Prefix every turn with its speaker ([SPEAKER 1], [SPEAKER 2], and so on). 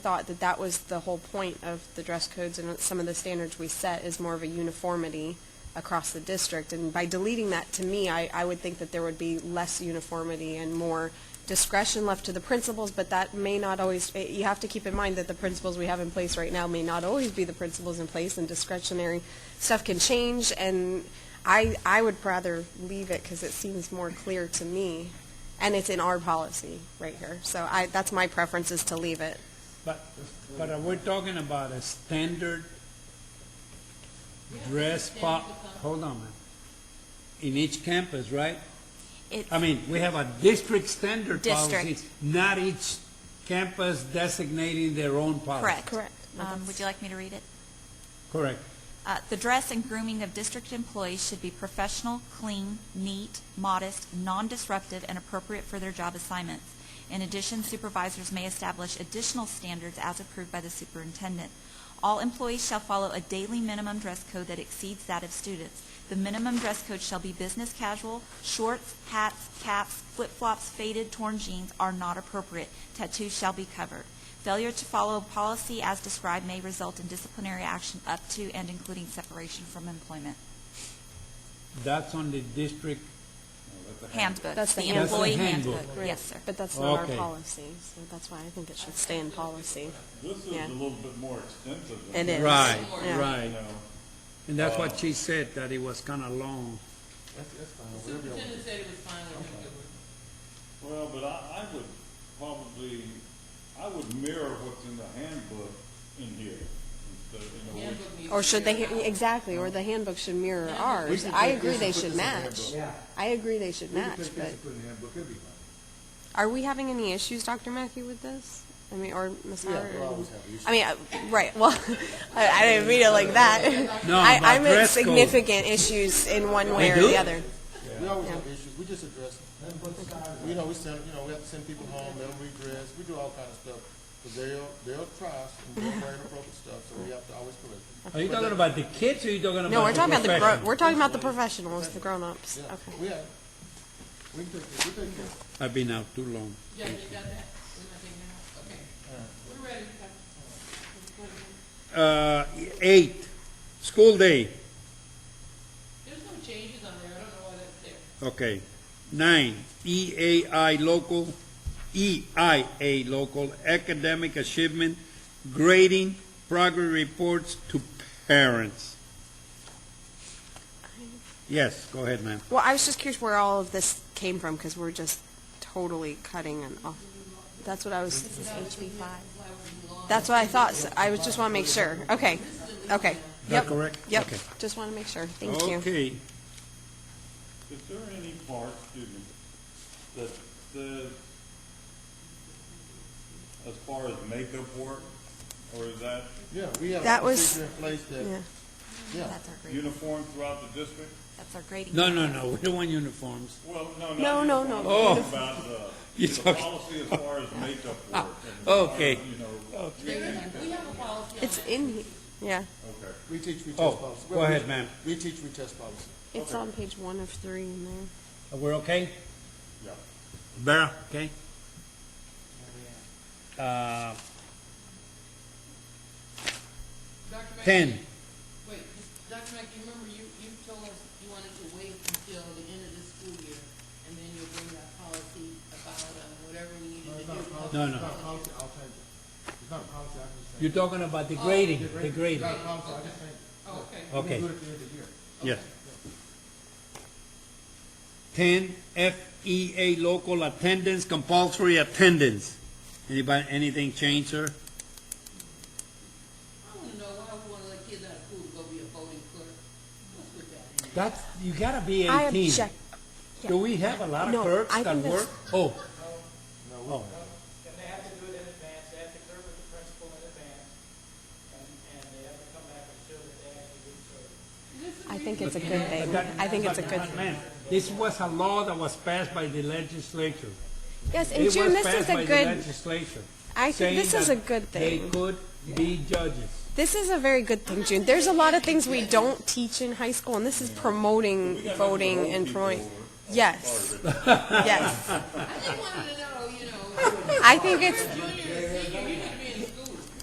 [SPEAKER 1] thought that that was the whole point of the dress codes and some of the standards we set is more of a uniformity across the district. And by deleting that, to me, I, I would think that there would be less uniformity and more discretion left to the principals, but that may not always, eh, you have to keep in mind that the principles we have in place right now may not always be the principles in place, and discretionary stuff can change, and I, I would rather leave it because it seems more clear to me, and it's in our policy right here. So I, that's my preference is to leave it.
[SPEAKER 2] But, but are we talking about a standard dress po, hold on, man. In each campus, right?
[SPEAKER 3] It's-
[SPEAKER 2] I mean, we have a district standard policy,
[SPEAKER 3] District.
[SPEAKER 2] not each campus designating their own policy.
[SPEAKER 3] Correct.
[SPEAKER 1] Correct. No,
[SPEAKER 3] Um,
[SPEAKER 1] that's-
[SPEAKER 3] Would you like me to read it?
[SPEAKER 2] Correct.
[SPEAKER 3] Uh, The dress and grooming of district employees should be professional, clean, neat, modest, non-disruptive, and appropriate for their job assignments. In addition, supervisors may establish additional standards as approved by the superintendent. All employees shall follow a daily minimum dress code that exceeds that of students. The minimum dress code shall be business casual. Shorts, hats, caps, flip-flops, faded, torn jeans are not appropriate. Tattoos shall be covered. Failure to follow policy as described may result in disciplinary action up to and including separation from employment.
[SPEAKER 2] That's on the district,
[SPEAKER 3] Handbook.
[SPEAKER 1] That's the
[SPEAKER 3] the
[SPEAKER 1] handbook.
[SPEAKER 3] employee
[SPEAKER 2] That's the handbook.
[SPEAKER 3] handbook. Yes, sir.
[SPEAKER 1] But that's not our
[SPEAKER 2] Okay.
[SPEAKER 1] policy, so that's why I think it should stay in policy.
[SPEAKER 4] This is
[SPEAKER 1] Yeah.
[SPEAKER 4] a little bit more extensive
[SPEAKER 1] It
[SPEAKER 4] than.
[SPEAKER 1] is.
[SPEAKER 2] right,
[SPEAKER 1] Yeah.
[SPEAKER 4] You
[SPEAKER 2] right.
[SPEAKER 4] know,
[SPEAKER 2] And that's what she said, that it was kind of long.
[SPEAKER 5] Superintendent said it was fine with him.
[SPEAKER 4] well, but I, I would probably, I would mirror what's in the handbook in here. instead, you know,
[SPEAKER 5] The
[SPEAKER 4] which-
[SPEAKER 5] handbook needs
[SPEAKER 1] Or
[SPEAKER 5] to
[SPEAKER 1] should
[SPEAKER 5] be
[SPEAKER 1] they, exactly, or the handbook should mirror
[SPEAKER 5] Yeah.
[SPEAKER 4] We
[SPEAKER 1] ours.
[SPEAKER 4] should
[SPEAKER 1] I
[SPEAKER 4] put-
[SPEAKER 1] agree
[SPEAKER 4] we
[SPEAKER 1] they
[SPEAKER 4] should
[SPEAKER 1] should
[SPEAKER 4] put this in the
[SPEAKER 1] match.
[SPEAKER 4] handbook.
[SPEAKER 1] I agree they should match,
[SPEAKER 6] We can
[SPEAKER 1] but
[SPEAKER 6] put in the handbook, everybody.
[SPEAKER 1] are we having any issues, Dr. Mackey, with this? I mean, or Ms.
[SPEAKER 6] Yeah,
[SPEAKER 1] Howard?
[SPEAKER 6] we'll always have issues.
[SPEAKER 1] I mean, uh, right, well, I, I didn't mean it like that.
[SPEAKER 2] No,
[SPEAKER 1] I,
[SPEAKER 2] about
[SPEAKER 1] I meant
[SPEAKER 2] dress code.
[SPEAKER 1] significant issues in one way
[SPEAKER 2] They
[SPEAKER 1] or the
[SPEAKER 2] do?
[SPEAKER 1] other.
[SPEAKER 6] We always have issues, we just address them. You know, we send, you know, we have to send people home, they'll redress, we do all kind of stuff. But they'll, they'll try us and they'll wear inappropriate stuff, so we have to always correct them.
[SPEAKER 2] Are you talking about the kids or are you talking about the
[SPEAKER 1] No, we're talking about the, gro-
[SPEAKER 2] professionals?
[SPEAKER 1] we're talking about the professionals, the grown-ups.
[SPEAKER 6] Yeah,
[SPEAKER 1] Okay.
[SPEAKER 6] we have, we can take, we take care of it.
[SPEAKER 2] I've been out too long.
[SPEAKER 5] Yeah, you got that? We're not taking it out? Okay. We're ready.
[SPEAKER 2] Uh, eight, school day.
[SPEAKER 5] There's no changes on there, I don't know why that's there.
[SPEAKER 2] Okay. Nine, EAI local, EIA local academic achievement grading progress reports to parents. Yes, go ahead, ma'am.
[SPEAKER 1] Well, I was just curious where all of this came from, because we're just totally cutting and off. That's what I was. This is HB five. That's what I thought, so I was, just want to make sure, okay, okay.
[SPEAKER 2] Is that
[SPEAKER 1] Yep.
[SPEAKER 2] correct?
[SPEAKER 1] Yep,
[SPEAKER 2] Okay.
[SPEAKER 1] just want to make sure, thank you.
[SPEAKER 2] Okay,
[SPEAKER 4] Is there any part, excuse me, that says, as far as makeup work, or is that
[SPEAKER 6] Yeah, we have
[SPEAKER 1] That
[SPEAKER 6] a
[SPEAKER 1] was-
[SPEAKER 6] procedure in place
[SPEAKER 1] Yeah.
[SPEAKER 6] that, yeah,
[SPEAKER 3] That's our grading.
[SPEAKER 4] uniform throughout the district?
[SPEAKER 3] That's our grading.
[SPEAKER 2] no, no, no, we don't want uniforms.
[SPEAKER 4] Well, no,
[SPEAKER 1] No,
[SPEAKER 4] no.
[SPEAKER 1] no, Oh.
[SPEAKER 4] I'm
[SPEAKER 1] no.
[SPEAKER 4] talking About the,
[SPEAKER 2] You're
[SPEAKER 4] the
[SPEAKER 2] talking-
[SPEAKER 4] policy as far as makeup work. and,
[SPEAKER 2] Okay.
[SPEAKER 4] You know,
[SPEAKER 5] There is, we have a policy on
[SPEAKER 1] It's
[SPEAKER 5] that.
[SPEAKER 1] in, he- yeah,
[SPEAKER 4] okay.
[SPEAKER 6] we teach retest
[SPEAKER 2] Oh,
[SPEAKER 6] policy.
[SPEAKER 2] go
[SPEAKER 6] Well, we-
[SPEAKER 2] ahead, ma'am.
[SPEAKER 6] We teach retest policy.
[SPEAKER 1] it's on page one of three in there.
[SPEAKER 2] Uh, We're okay?
[SPEAKER 4] Yeah.
[SPEAKER 2] Vera, okay? Uh,
[SPEAKER 5] Dr. Mackey-
[SPEAKER 2] ten.
[SPEAKER 5] Wait, Dr. Mackey, remember you, you told us you wanted to wait until the end of the school year, and then you'll bring that policy about, um, whatever we needed to do.
[SPEAKER 2] No, no.
[SPEAKER 6] It's not a policy, I'll change it. It's not a policy, I just change it.
[SPEAKER 2] You're talking about the grading, the
[SPEAKER 6] It's
[SPEAKER 2] grading.
[SPEAKER 6] not a policy, I just change it.
[SPEAKER 5] Oh, okay.
[SPEAKER 2] Okay.
[SPEAKER 6] We do it at the end of the year.
[SPEAKER 2] Yes. Ten, FEA local attendance, compulsory attendance. Anybody, anything change, sir?
[SPEAKER 5] I wanna know why we wanna let kids out of school to go be a voting clerk. What's with that?
[SPEAKER 2] That's, you gotta be
[SPEAKER 1] I
[SPEAKER 2] eighteen.
[SPEAKER 1] object,
[SPEAKER 2] Do we have a lot of
[SPEAKER 1] No,
[SPEAKER 2] clerks
[SPEAKER 1] I
[SPEAKER 2] that
[SPEAKER 1] think
[SPEAKER 2] work? Oh,
[SPEAKER 7] And they have to do it in advance, they have to clear with the principal in advance, and, and they have to come back and show that they actually did serve.
[SPEAKER 1] I think it's a good thing, I think it's a good thing.
[SPEAKER 2] man, this was a law that was passed by the legislature.
[SPEAKER 1] Yes,
[SPEAKER 2] It
[SPEAKER 1] and
[SPEAKER 2] was
[SPEAKER 1] June, this is
[SPEAKER 2] passed by
[SPEAKER 1] a
[SPEAKER 2] the
[SPEAKER 1] good,
[SPEAKER 2] Legislature.
[SPEAKER 1] I think
[SPEAKER 2] saying
[SPEAKER 1] this is
[SPEAKER 2] that
[SPEAKER 1] a good
[SPEAKER 2] They
[SPEAKER 1] thing.
[SPEAKER 2] could be judges.
[SPEAKER 1] This is a very good thing, June. There's a lot of things we don't teach in high school, and this is promoting voting and promoting. Yes. Yes.
[SPEAKER 5] I just wanted to know, you know,
[SPEAKER 1] I think it's,